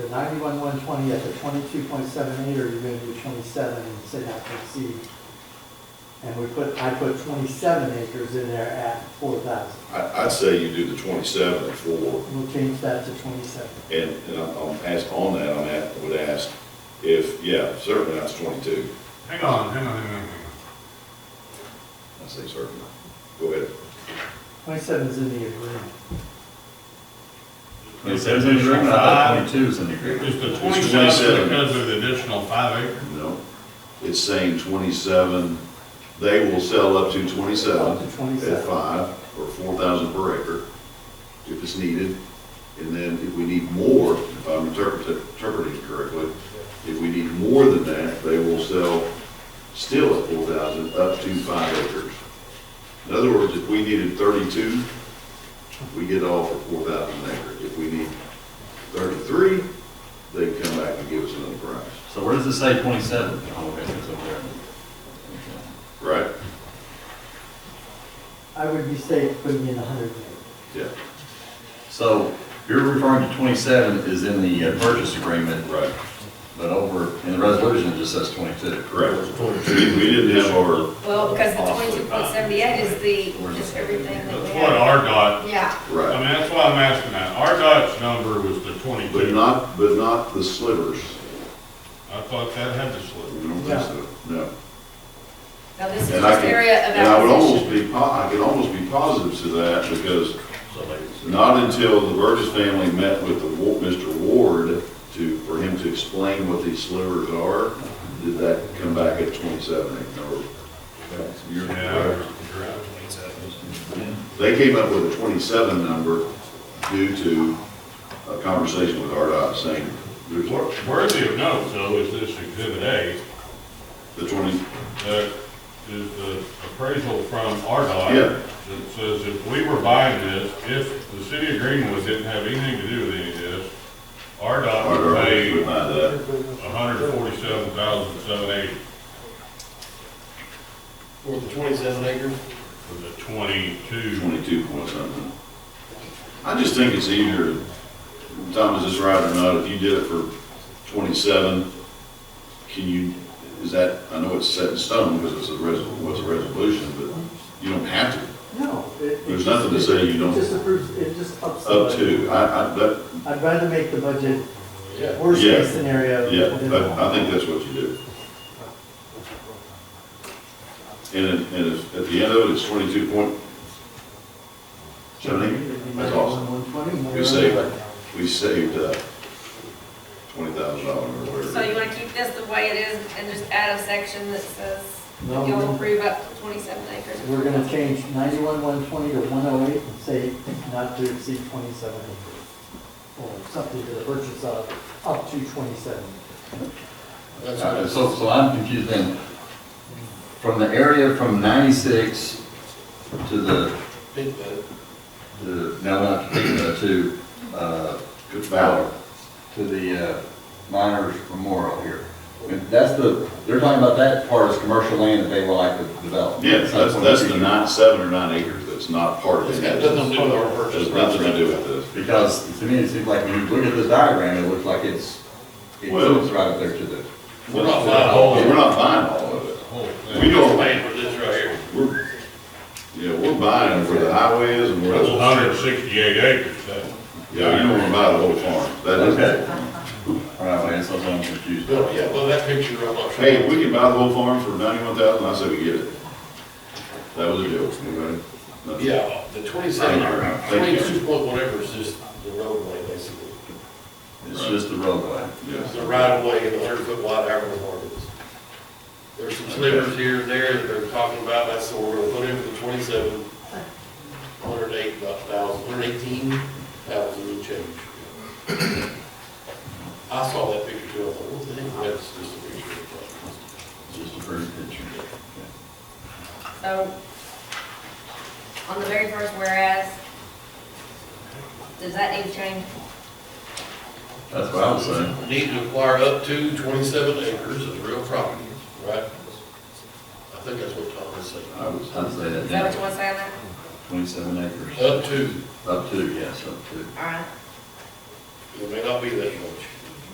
ninety-one, one twenty at the twenty-two point seven eight, or you're gonna do twenty-seven and say not to exceed? And we put, I put twenty-seven acres in there at four thousand. I, I'd say you do the twenty-seven at four, We'll change that to twenty-seven. and, and I'm, I'm ask, on that, I'm at, would ask if, yeah, certainly that's twenty-two. Hang on, hang on, hang on, hang on. I say certainly. Go ahead. Twenty-seven is in the agreement. It says in the agreement, I thought twenty-two is in the agreement. Is the It's twenty-seven 27. because of the additional five acres? No, it's saying twenty-seven, they will sell up to twenty-seven Up to at 27. five, or four thousand per acre, if it's needed. And then if we need more, if I'm interpret- interpreting it correctly, if we need more than that, they will sell still at four thousand, up to five acres. In other words, if we needed thirty-two, we get all for four thousand an acre. If we need thirty-three, they come back and give us another price. So where does it say twenty-seven? Oh, okay, it's over there. Right, I would be safe putting in a hundred and eight. yeah, So you're referring to twenty-seven is in the uh, purchase agreement, right, but over, in the resolution, it just says twenty-two. correct. We we didn't have our, Well, because the twenty-two point seventy-eight is the, is everything that we That's what have. RDOT, Yeah, I mean, right, that's why I'm asking that. RDOT's number was the but twenty-two. not, but not the slivers. I thought that had to slip. We don't think so, no. now this is And I just can- area of And I would almost acquisition. be, po- I could almost be positive to that, because So they- not until the Burgess family met with the, Wa- Mr. Ward to, for him to explain what these slivers are, did that come back at twenty-seven, or? You're Yeah, correct. you're right. They came up with a twenty-seven number due to a conversation with RDOT saying, there's Wor- Worthy of note, though, is this exhibit A, The twenty, that is the appraisal from RDOT. Yeah. That says if we were buying this, if the city of Greenwood didn't have anything to do with any of this, RDOT or, would pay we buy that, hundred forty-seven thousand seven eighty For the twenty-seven acres? for the twenty-two. twenty-two point something. I just think it's easier, Tom, is this right or not, if you did it for twenty-seven, can you, is that, I know it's set in stone because it's a res, what's a resolution, but you don't have to, No. it- it There's nothing to just- say you don't- It just approves, it just ups. the up budget. to, I, I, that, I'd rather make the budget Yeah. worst Yeah. case scenario. Yeah, than- that- I think that's what you do. And, it- and it's- at the end of it, it's twenty-two point seven eight. That's awesome. One twenty. You saved, we saved uh, twenty thousand dollars or So you whatever. wanna keep this the way it is and just add a section that says No, that y'all we- approve up to twenty-seven acres. We're gonna change ninety-one, one twenty to one oh eight and say not to exceed twenty-seven acres. Or something to the purchase of up to twenty-seven. That's Uh, what it's, So, so I'm confused then. From the area from ninety-six to the, big bit. the, now not to, Pickma, to, uh, Good valor. to the uh, miners memorial here. I mean, That's the, they're talking about that part as commercial land that they would like to develop. Yeah, that's, that's the nine, seven or nine acres that's not part of It's it. got nothing to do with our Has purchase. nothing price. to do with this. Because to me, it seems like when you look at this diagram, it looks like it's, it Well- fits right up there to the. We're not buying all, we're not buying all of it. We don't- paying for this right here. We're, yeah, we're buying where the highway is and where That's the. hundred and sixty-eight acres, that. Yeah, you don't wanna buy the whole farm. That is. Okay. All right, well, that's what I'm confused. Well, yeah, well, that picture, I'm not sure. Hey, if we can buy the whole farm for ninety-one thousand, I say we get it. That was a deal, anybody? Nothing. Yeah, the twenty-seven, or Thank you. twenty-two point whatever is just the roadway, basically. It's just the roadway. Yes. The right of way and the hundred foot wide however long it is. There's some slivers here and there that they're talking about, that's what we're gonna put in for the twenty-seven, hundred eight thousand, hundred eighteen thousand and change. I saw that picture too, I thought, what the heck, that's just a picture. It's just a pretty picture. Okay. So, on the very first whereas, does that need change? That's what I was saying. Need to acquire up to twenty-seven acres of real property, right? I think that's what Tom was saying. I was, I'd say that Is that down, what you want to say on that? twenty-seven acres. Up to, Up to, yes, up to. All right. it may not be that much.